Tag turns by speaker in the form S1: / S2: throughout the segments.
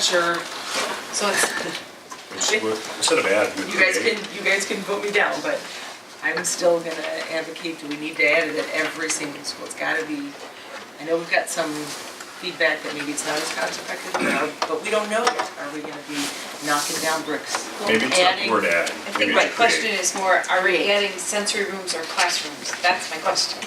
S1: Sure.
S2: So it's,
S3: It's- we're- Instead of add, we
S1: You guys can,
S3: create.
S1: you guys can vote me down, but I'm still gonna advocate, do we need to add it at every single school? It's gotta be, I know we've got some feedback that maybe it's not as cost effective, but- but we don't know yet. Are we gonna be knocking down bricks?
S3: Maybe it's not
S1: Adding-
S3: the word add.
S2: I
S3: maybe
S2: think
S3: it's
S2: my question
S3: create.
S2: is more, are we
S1: Create.
S2: adding sensory rooms or classrooms? That's my question.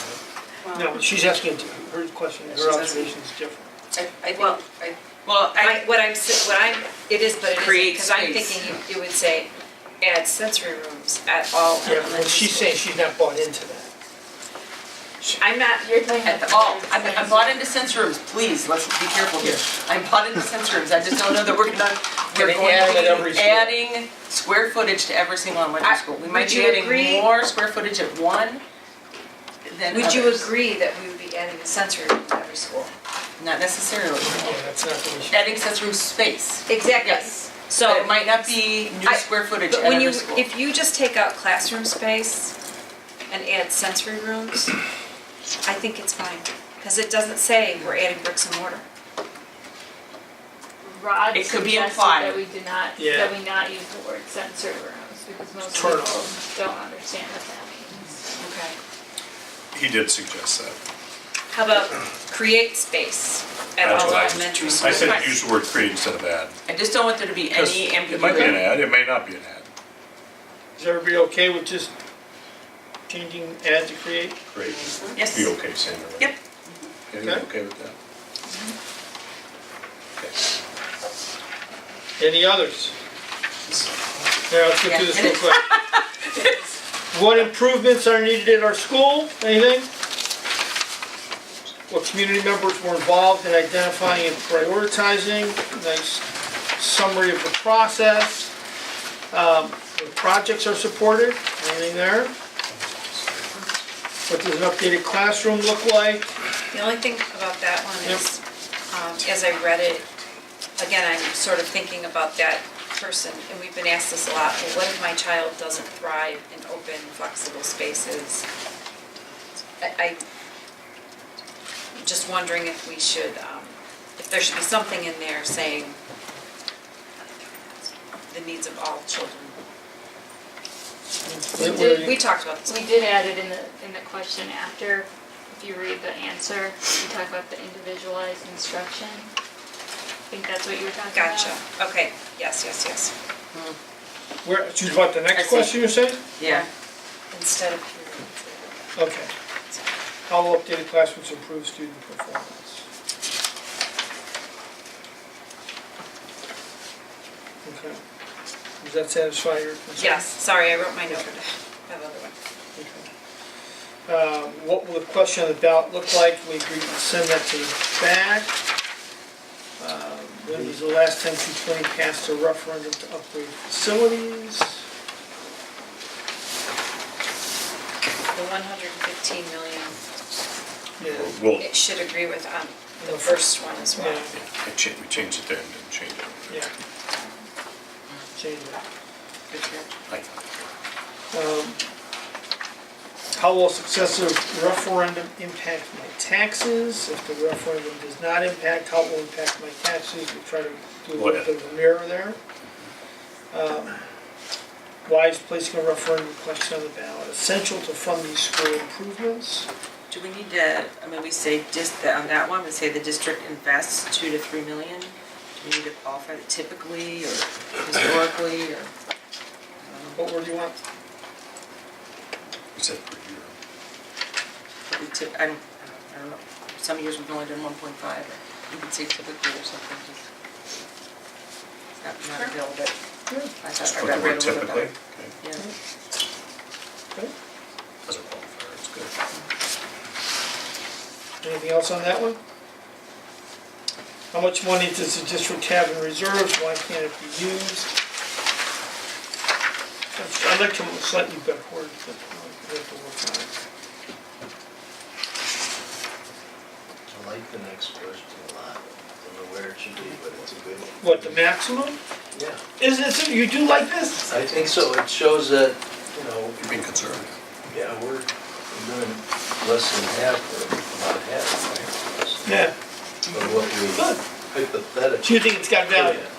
S4: No, she's asking, her question, her observation is different.
S2: I, I think,
S5: Well,
S2: I-
S1: Well,
S5: I,
S1: I,
S5: what I'm, s- what I'm, it is, but it isn't,
S1: Create
S5: because I'm
S1: space.
S5: thinking you- you would say, add sensory rooms at all
S4: Yeah, but
S5: elementary
S4: she's
S5: schools.
S4: saying she's not bought into that.
S5: I'm not,
S1: at the, oh, I'm, I'm bought into sense rooms, please, let's be careful here. I'm bought into sense rooms, I just don't know that we're gonna, we're
S4: Gonna add at
S1: going to
S4: every
S1: be
S4: school.
S1: adding square footage to every single elementary
S5: I-
S1: school. We
S5: would
S1: might be
S5: you agree-
S1: adding more square footage at one than
S5: would you
S1: others.
S5: agree that we would be adding a sensory room to every school?
S1: Not necessarily.
S4: Yeah, that's not the issue.
S1: Adding sensory space.
S5: Exactly.
S1: Yes.
S5: So.
S1: But it might not be new
S5: I-
S1: square footage
S5: But
S1: at
S5: when you,
S1: every school.
S5: if you just take out classroom space and add sensory rooms, I think it's fine, because it doesn't say we're adding bricks and mortar.
S6: Rod
S1: It could be
S6: suggested
S1: implied.
S6: that we do not,
S4: Yeah.
S6: that we not use the word sensory rooms, because most
S4: Turn
S6: people
S4: off.
S6: don't understand what that means.
S5: Okay.
S3: He did suggest that.
S5: How about create space at
S3: That's
S5: all
S3: what I-
S5: elementary
S3: I
S5: schools?
S3: said use the word create instead of add.
S1: I just don't want there to be any
S3: It might be an
S1: ambiguity.
S3: ad, it may not be an ad.
S4: Is everybody okay with just changing add to create?
S3: Create.
S1: Yes.
S3: Be okay saying that, right?
S1: Yep.
S3: Everyone
S4: Okay.
S3: okay with that?
S4: Any others? Now, let's get through this real quick. What improvements are needed at our school, anything? What community members were involved in identifying and prioritizing, nice summary of the process. Um, What projects are supported, anything there? What does an updated classroom look like?
S5: The only thing about that one
S4: Yep.
S5: is, um, as I read it, again, I'm sort of thinking about that person, and we've been asked this a lot, well, what if my child doesn't thrive in open, flexible spaces? I, I, just wondering if we should, um, if there should be something in there saying uh, the needs of all children.
S4: What- what are
S6: Did
S4: you-
S5: We talked about this.
S6: We did add it in the, in the question after, if you read the answer, we talk about the individualized instruction. I think that's what you were talking about.
S5: Gotcha, okay, yes, yes, yes,
S4: Where, she's about the
S1: I
S4: next
S1: see.
S4: question you're saying?
S1: Yeah.
S5: instead of periods.
S4: Okay. How will updated classrooms improve student performance? Okay. Does that satisfy your concern?
S5: Yes, sorry, I wrote my note, that other one.
S4: Okay. Uh, What will the question on the ballot look like? We agreed to send that to the back. Uh, When was the last time P20 passed a referendum to upgrade facilities?
S5: The 115 million,
S4: Yeah.
S3: Well,
S5: it should agree with um, the first one as well.
S4: Yeah.
S3: I cha- we changed it there and didn't change it.
S4: Yeah. Change that.
S3: I-
S4: Um, How will a successive referendum impact my taxes? If the referendum does not impact, how it will impact my taxes? We try to do a little bit of a mirror there. Um, Why is placing a referendum question on the ballot essential to fund these school improvements?
S1: Do we need to, I mean, we say just, the- on that one, we say the district invests two to three million? Do we need to qualify it typically or historically or?
S4: What word do you want?
S3: We said per year.
S1: But we typ- I don't, I don't know, some years we've only done one point five, or you could say typically or something, just. It's not, not a bill, but I
S3: Just put the
S1: thought I read
S3: word
S1: read a little bit
S3: typically.
S1: better.
S3: Okay.
S1: Yeah.
S3: As a qualifier, it's good.
S4: Anything else on that one? How much money does the district have in reserves? Why can't it be used? I'd like to slightly better word, but we have to work on it.
S7: I like the next question a lot. I don't know where it should be, but it's a good one.
S4: What, the maximum?
S7: Yeah.
S4: Isn't it, you do like this?
S7: I think so. It shows that, you know,
S3: You're being conservative.
S7: yeah, we're doing less than half or about half. right? Less than
S4: Yeah,
S7: Of what we
S4: good.
S8: hypothetical.
S7: Do you think it's got value?